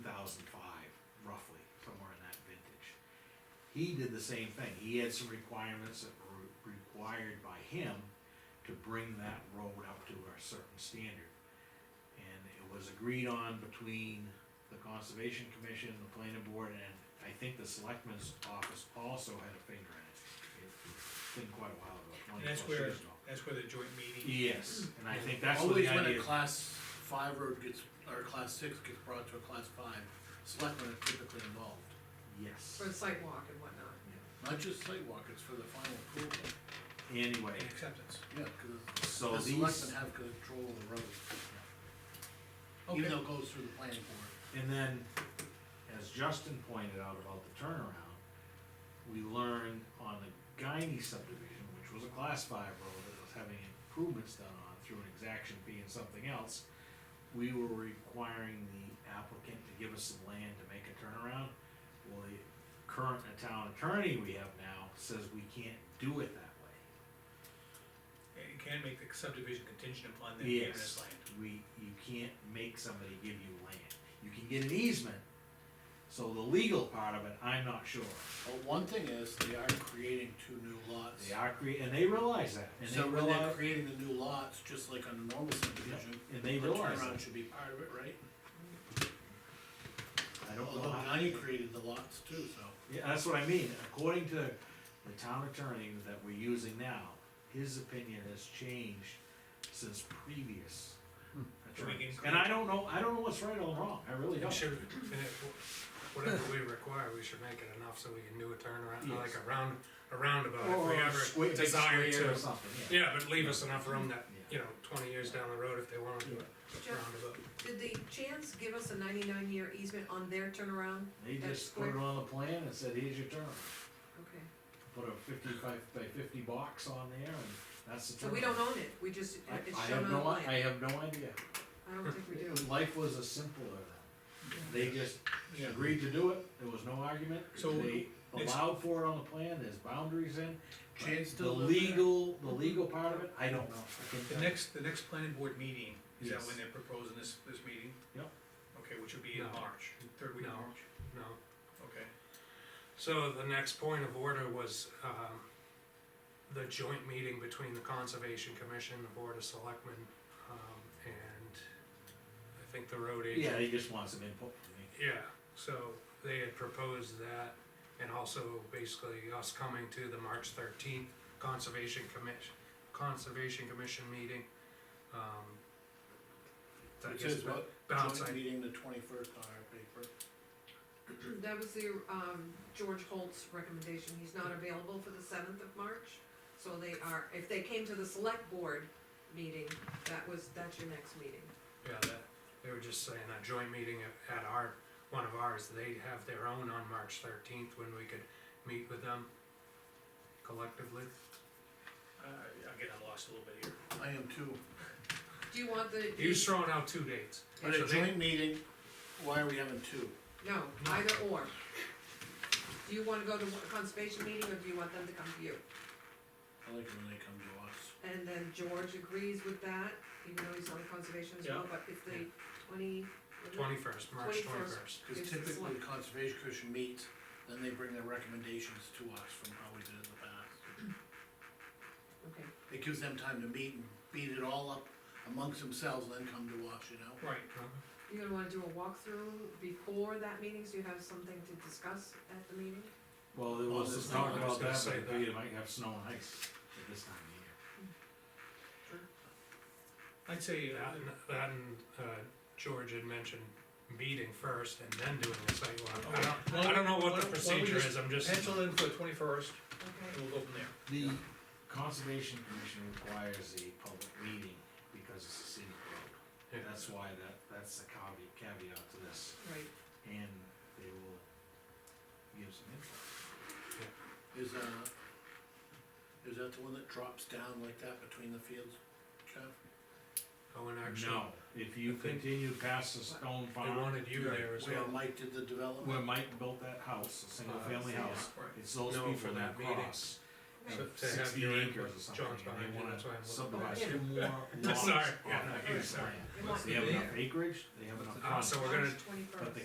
he did the same thing, he had some requirements that were required by him to bring that road up to a certain standard. And it was agreed on between the conservation commission, the planning board, and I think the selectmen's office also had a finger in it. It's been quite a while ago, And twenty that's plus where- years ago. That's where the joint meeting, Yes, and I think that's what the Always when idea, a class five road gets, or a class six gets brought to a class five, selectmen are typically involved. yes, for the sidewalk and whatnot. Not just sidewalk, it's for the final approval, anyway, and acceptance. yeah, cause so the selectmen these, have control of the road. Okay. Even though it goes through the planning board. and then, as Justin pointed out about the turnaround, we learned on the Guiney subdivision, which was a class five road that was having improvements done on through an exaction fee and something else, we were requiring the applicant to give us some land to make a turnaround. Well, the current town attorney we have now says we can't do it that way. And you can't make the subdivision contingent upon them giving us Yes, land. we, you can't make somebody give you land. You can get an easement, so the legal part of it, I'm not sure. But one thing is, they are creating two new lots. They are crea, and they realize that, and So they when they're realize, creating the new lots, just like on a normal subdivision, and they the realize turnaround that. should be part of it, right? I don't know Although how. now you created the lots too, so. Yeah, that's what I mean, according to the town attorney that we're using now, his opinion has changed since previous So we can attorneys. create- And I don't know, I don't know what's right or wrong, I really We don't. should, whatever we require, we should make it enough so we can do a turnaround, like a round, a roundabout if Or a we square- ever big desire square to. Or something, yeah. Yeah, but leave us enough room that, Yeah. you know, twenty years down the road if they wanna do a Jeff, roundabout. did the Chans give us a ninety-nine year easement on their turnaround? They That's just put it quick. on the plan and said, here's your turn. Okay, Put a fifty-five by fifty box on there and that's the so turn. we don't own it, we just, I, it's I have shown on the no, I plan. have no idea. I don't think we do. Life was a simpler then. They just Yeah. agreed to do it, there was no argument. So, They it's- allowed for it on the plan, there's boundaries in. but Chance still The live there? legal, the legal part of it, I don't know. I couldn't The tell you. next, the next planning board meeting, is that Yes. when they're proposing this, this meeting? Yep. Okay, which would be in No. March, third week of No. March, No. okay. So the next point of order was, um, the joint meeting between the Conservation Commission, the Board of Selectmen, um, and I think the road agent. Yeah, they just want some input from me. Yeah, so they had proposed that, and also basically us coming to the March thirteenth Conservation Commission, Conservation Commission meeting. um, I Which guess is what, bounce joint idea. meeting the twenty-first on our paper. That was the, um, George Holt's recommendation, he's not available for the seventh of March, so they are, if they came to the select board meeting, that was, that's your next meeting. Yeah, that, they were just saying a joint meeting at at our, one of ours, they have their own on March thirteenth, when we could meet with them collectively. Uh, again, I'm lost a little bit here. I am too. Do you want the? He was throwing out two dates. But So a they- joint meeting, why are we having two? No, either or. Do you wanna go to a conservation meeting, or do you want them to come to you? I like it when they come to us. And then George agrees with that, even though he's on conservation as well, but it's the twenty. Twenty-first, March 21st. twenty-first. Cause It's the typically select- Conservation Commission meets, then they bring their recommendations to us from how we did it in the past. Okay, It gives them time to meet and beat it all up amongst themselves, and then come to us, you know? Right. Uh-huh. you're gonna wanna do a walkthrough before that meeting, so you have something to discuss at the meeting? Well, there Oh, was this this talk is- I was about gonna that, say but that. you might have snow and ice at this time of year. I'd say, That uh, and, that and, uh, George had mentioned meeting first and then doing the site walk. I don't, I don't know what the procedure is, I'm just. pencil in for the twenty-first, and Okay, we'll go from there. The conservation commission requires a public meeting because it's a scenic road. Yeah. That's why that, that's the caveat, caveat to this, right, and they will give some input. Is, uh, is that the one that drops down like that between the fields, Jeff? Oh, and actually, No, if you I think- continue past the stone they farm, wanted you there as Where well. Mike did the where development? Mike built that house, a single Uh, family yeah. house, Right. it's those No, for people that that meeting. cross. So- have to have Sixty your acres or input, something, John's and behind they you, wanna that's why I'm looking subdivide back. two more lots Sorry. off Yeah, no, that you're piece of sorry. land. It wants They have to be enough acreage, they have enough Ah, so frontage, we're gonna- March 21st. but the